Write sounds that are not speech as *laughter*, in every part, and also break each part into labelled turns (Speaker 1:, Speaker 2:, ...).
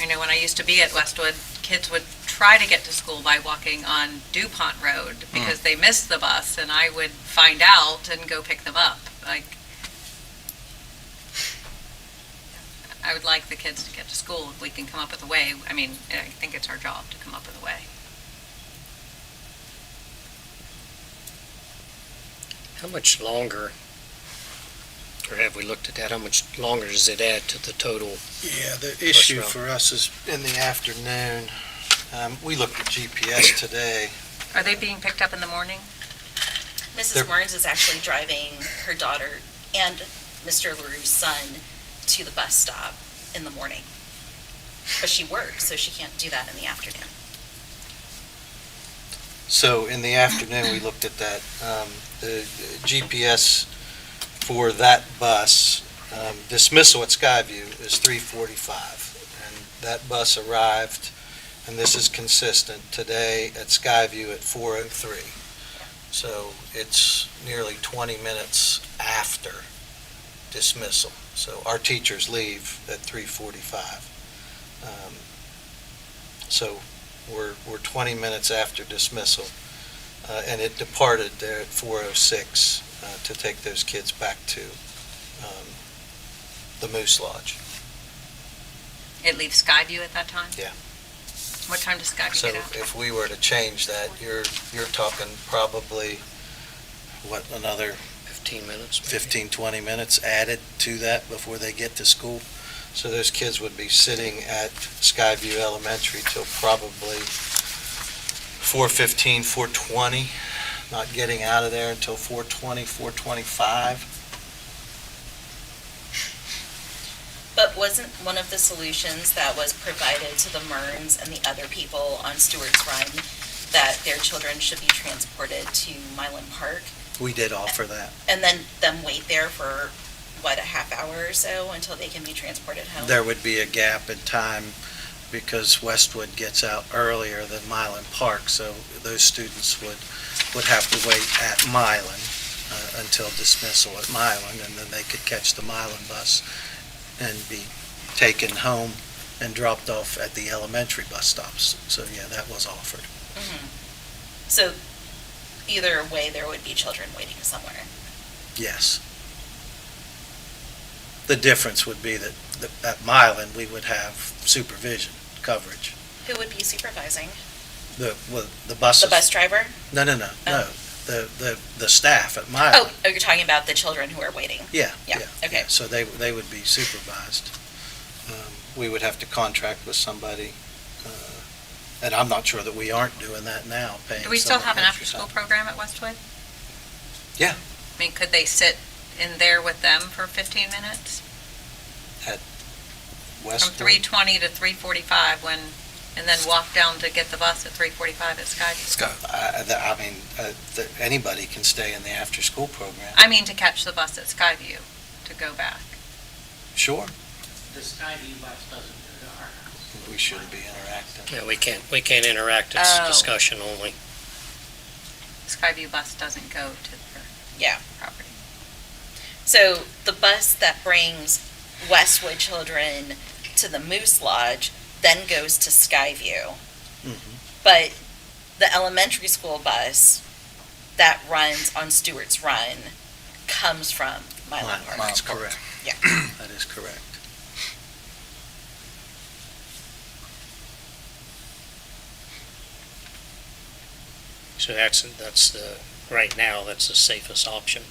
Speaker 1: You know, when I used to be at Westwood, kids would try to get to school by walking on DuPont Road
Speaker 2: Hmm.
Speaker 1: because they missed the bus, and I would find out and go pick them up. Like, I would like the kids to get to school if we can come up with a way. I mean, I think it's our job to come up with a way.
Speaker 3: How much longer, or have we looked at that? How much longer does it add to the total?
Speaker 2: Yeah, the issue
Speaker 3: row.
Speaker 2: for us is in the afternoon. Um, We looked at GPS today.
Speaker 1: Are they being picked up in the morning?
Speaker 2: They're-
Speaker 4: Mrs. Warrens is actually driving her daughter and Mr. LaRue's son to the bus stop in the morning. But she works, so she can't do that in the afternoon.
Speaker 2: So in the afternoon, we looked at that. Um, The GPS for that bus um, dismissal at Skyview is 3:45. And that bus arrived, and this is consistent, today at Skyview at 4:03. So it's nearly 20 minutes after dismissal. So our teachers leave at 3:45. Um, So we're, we're 20 minutes after dismissal, uh, and it departed there at 4:06 uh, to take those kids back to um, the Moose Lodge.
Speaker 1: It leaves Skyview at that time?
Speaker 2: Yeah.
Speaker 1: What time does Skyview
Speaker 2: So
Speaker 1: get out?
Speaker 2: if we were to change that, you're, you're talking probably, what, another
Speaker 3: 15 minutes? maybe?
Speaker 2: 15, 20 minutes added to that before they get to school. So those kids would be sitting at Skyview Elementary till probably 4:15, 4:20, not getting out of there until 4:20, 4:25.
Speaker 4: But wasn't one of the solutions that was provided to the Murns and the other people on Stewart's Run that their children should be transported to Mylan Park
Speaker 2: We did offer that.
Speaker 4: and then them wait there for, what, a half hour or so until they can be transported home?
Speaker 2: There would be a gap in time because Westwood gets out earlier than Mylan Park, so those students would, would have to wait at Mylan uh, until dismissal at Mylan, and then they could catch the Mylan bus and be taken home and dropped off at the elementary bus stops. So, yeah, that was offered.
Speaker 4: Mhm. So either way, there would be children waiting somewhere.
Speaker 2: Yes. The difference would be that, that at Mylan, we would have supervision coverage.
Speaker 4: Who would be supervising?
Speaker 2: The, well, the buses.
Speaker 4: The bus driver?
Speaker 2: No, no, no,
Speaker 1: Oh.
Speaker 2: no. The, the, the staff at my.
Speaker 4: Oh, oh, you're talking about the children who are waiting.
Speaker 2: Yeah.
Speaker 4: yeah, okay.
Speaker 2: yeah. So they, they would be supervised. Um, We would have to contract with somebody, uh, and I'm not sure that we aren't doing that now, paying.
Speaker 1: Do we still
Speaker 2: someone
Speaker 1: have an
Speaker 2: extra
Speaker 1: after-school
Speaker 2: time.
Speaker 1: program at Westwood?
Speaker 2: Yeah.
Speaker 1: I mean, could they sit in there with them for 15 minutes? From
Speaker 2: Westwood.
Speaker 1: 3:20 to 3:45 when, and then walk down to get the bus at 3:45 at Skyview?
Speaker 2: I, I- I mean, uh, that anybody can stay in the after-school program.
Speaker 1: I mean, to catch the bus at Skyview to go back.
Speaker 2: Sure,
Speaker 5: The Skyview bus doesn't go to our house.
Speaker 2: we shouldn't be interacting.
Speaker 3: Yeah, we can't, we can't interact, it's
Speaker 1: Oh.
Speaker 3: discussion only.
Speaker 1: Skyview bus doesn't go to their
Speaker 4: Yeah.
Speaker 1: property.
Speaker 4: So the bus that brings Westwood children to the Moose Lodge then goes to Skyview.
Speaker 2: Mhm.
Speaker 4: But the elementary school bus that runs on Stewart's Run comes from Mylan Park.
Speaker 2: That's correct.
Speaker 4: Yeah.
Speaker 2: That is correct.
Speaker 3: So that's, that's the, right now, that's the safest option,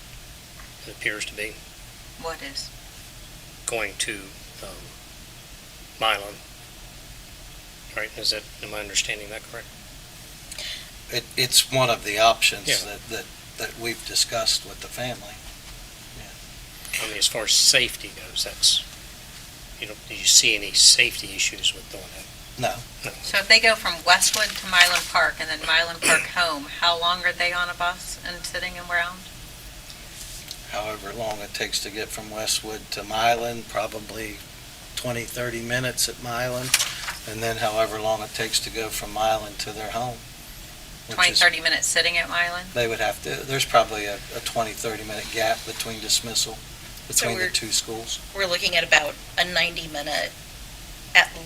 Speaker 3: it appears to be,
Speaker 1: What is?
Speaker 3: going to um, Milan. Right, is that, am I understanding that correct?
Speaker 2: It, it's one of the options
Speaker 3: Yeah.
Speaker 2: that, that, that we've discussed with the family.
Speaker 3: I mean, as far as safety goes, that's, you know, do you see any safety issues with doing that?
Speaker 2: No,
Speaker 1: So if they go from Westwood to Mylan Park and then Mylan
Speaker 2: *clears throat*
Speaker 1: Park home, how long are they on a bus and sitting around?
Speaker 2: however long it takes to get from Westwood to Mylan, probably 20, 30 minutes at Mylan, and then however long it takes to go from Mylan to their home. which
Speaker 1: 20,
Speaker 2: is-
Speaker 1: 30 minutes sitting at Mylan?
Speaker 2: They would have to, there's probably a, a 20, 30 minute gap between dismissal, between the
Speaker 4: we're-
Speaker 2: two schools.
Speaker 4: We're looking at about a 90-minute at